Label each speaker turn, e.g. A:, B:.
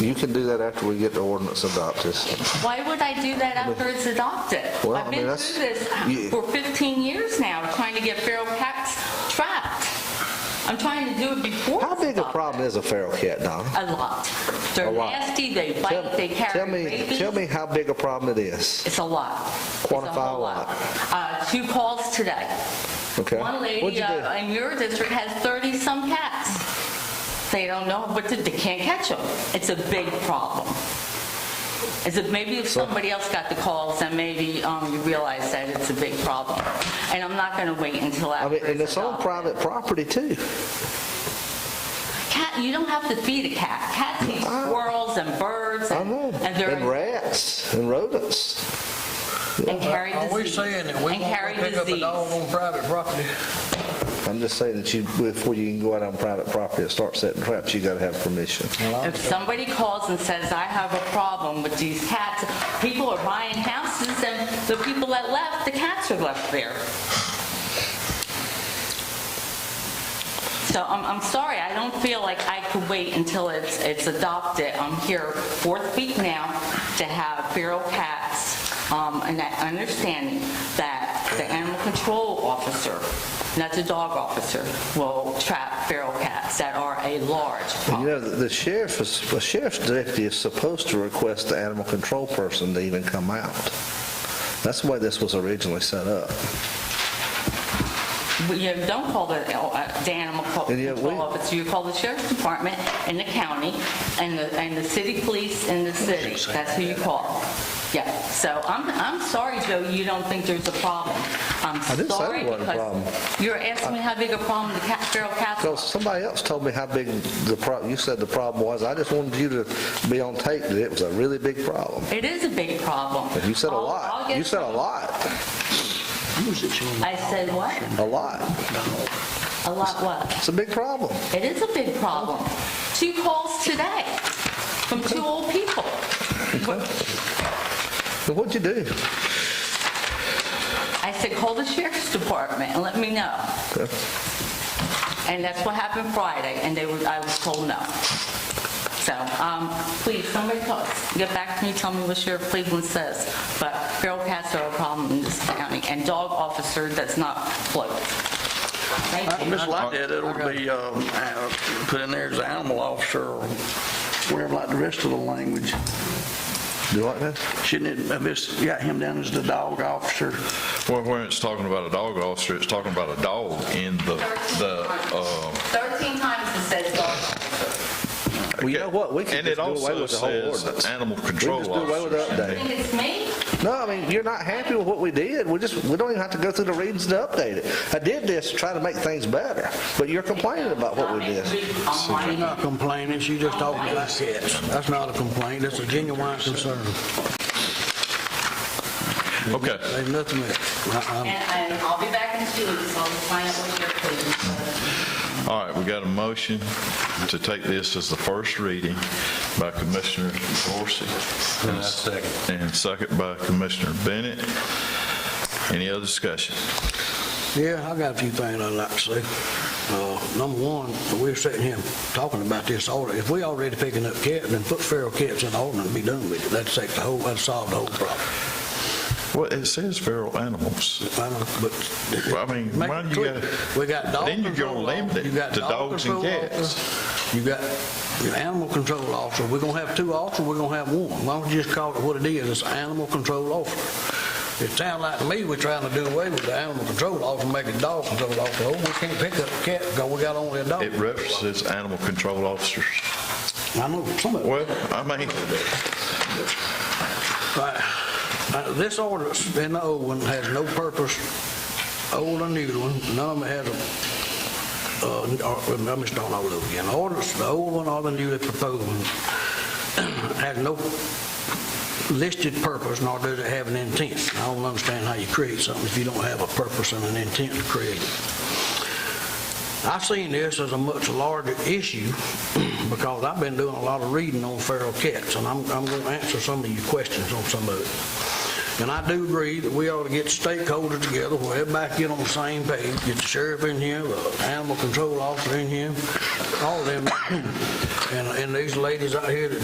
A: You can do that after we get the ordinance adopted.
B: Why would I do that after it's adopted?
A: Well, I
B: I've
A: mean,
B: been
A: that's-
B: through this
A: you-
B: for 15 years now, trying to get feral cats trapped. I'm trying to do it before
A: How
B: it's
A: big a
B: adopted.
A: problem is a feral cat, Donna?
B: A lot. They're
A: A lot.
B: nasty, they
A: Tell-
B: bite, they
A: Tell
B: carry
A: me,
B: rabies.
A: tell me how big a problem it is,
B: It's a lot. It's
A: Quantify a
B: whole
A: lot.
B: Uh, Two calls today.
A: okay?
B: One
A: What'd
B: lady
A: you do?
B: uh, in your district has 30-some cats. They don't know, but they can't catch them. It's a big problem. As if maybe if somebody else got the calls, then maybe um, you realize that it's a big problem. And I'm not going to wait until
A: I
B: after
A: mean, and it's on
B: adopted.
A: private property too.
B: Cat, you don't have to feed a cat. Cats eat squirrels and birds
A: I
B: and
A: know.
B: and they're
A: And rats and rodents.
B: and carry
C: Are we
B: disease.
C: saying that we
B: And carry
C: won't pick up a
B: disease.
C: dog on private property?
A: I'm just saying that you, before you can go out on private property and start setting traps, you gotta have permission.
B: If somebody calls and says, I have a problem with these cats, people are buying houses and the people that left, the cats are left there. So I'm, I'm sorry, I don't feel like I could wait until it's, it's adopted. I'm here fourth week now to have feral cats, um, and that understanding that the animal control officer, not the dog officer, will trap feral cats that are a large
A: And you know, the sheriff is, the sheriff's deputy is supposed to request the animal control person to even come out. That's the way this was originally set up.
B: Well, You don't call the, uh, the animal co-
A: And yet we-
B: control officer, you call the sheriff's department and the county and the, and the city police in the city. That's who you call. Yeah, so I'm, I'm sorry, Joe, you don't think there's a problem. I'm
A: I didn't say
B: sorry
A: there wasn't a problem.
B: because you're asking me how big a problem the cat, feral cats
A: Because somebody else told me how big the problem, you said the problem was. I just wanted you to be on tape that it was a really big problem.
B: It is a big problem.
A: And you said a
B: I'll- I'll
A: lot.
B: get
A: You said a lot,
C: Use it, you know.
B: I said what?
A: a lot.
B: A lot what?
A: It's a big problem.
B: It is a big problem. Two calls today from two old people.
A: And what'd you do?
B: I said, call the sheriff's department and let me know.
A: Okay.
B: And that's what happened Friday, and they were, I was told no. So, um, please, somebody call, get back to me, tell me what Sheriff Cleveland says. But feral cats are a problem in this county, and dog officer does not float. Thank you.
C: Just like that, Uh, it'll be uh, uh, put in there as animal officer or whatever, like the rest of the language.
A: You like that?
C: Shouldn't it, have just got him down as the dog officer?
D: Well, when it's talking about a dog officer, it's talking about a dog in the, the, uh,
B: 13 times it says dog officer.
A: Well, you know what? We can
D: and
A: just
D: it
A: do away
D: also
A: with the whole
D: says
A: ordinance.
D: animal
A: We can
D: control
A: just do away with the
D: officer.
A: update.
B: Think it's me?
A: No, I mean, you're not happy with what we did. We just, we don't even have to go through the readings to update it. I did this to try to make things better, but you're complaining about what we did.
C: She's not complaining, she's just talking like that. That's not a complaint, that's a genuine concern.
D: Okay,
C: There's nothing that,
B: And, and I'll be back in two weeks, I'll find out what Sheriff Cleveland says.
D: all right, we got a motion to take this as the first reading by Commissioner Dorsey. And second. And second by Commissioner Bennett. Any other discussion?
C: yeah, I got a few things I'd like to say. Uh, Number one, we're sitting here talking about this order. If we already picking up cats, then put feral cats in the order and be done with it. That'd take the whole, that'd solve the whole problem.
D: Well, it says feral animals.
C: I know, But
D: Well, I mean,
C: Make
D: why
C: it
D: you
C: clear.
D: gotta?
C: We got dog
D: Then you're gonna
C: control
D: limit
C: officer, you
D: it
C: got
D: to
C: dog
D: dogs and
C: control
D: cats.
C: officer, You got your animal control officer. We're gonna have two officers, we're gonna have one. Why don't you just call it what it is, it's an animal control officer. It sounds like to me we're trying to do away with the animal control officer, make it dog control officer. Oh, we can't pick up a cat because we got only a dog.
D: It references animal control officers.
C: I know, some of it.
D: Well, I mean,
C: Right. Uh, This ordinance in the old one has no purpose, old or new one, none of them has a, uh, or- let me start all over again. The Ordinance, the old one or the newly proposed one, has no listed purpose, nor does it have an intent. I don't understand how you create something if you don't have a purpose and an intent to create it. I seen this as a much larger issue because I've been doing a lot of reading on feral cats, and I'm, I'm going to answer some of your questions on some of it. And I do agree that we ought to get stakeholders together, where everybody get on the same page, get the sheriff in here, the animal control officer in here, all of them. And, and these ladies out here that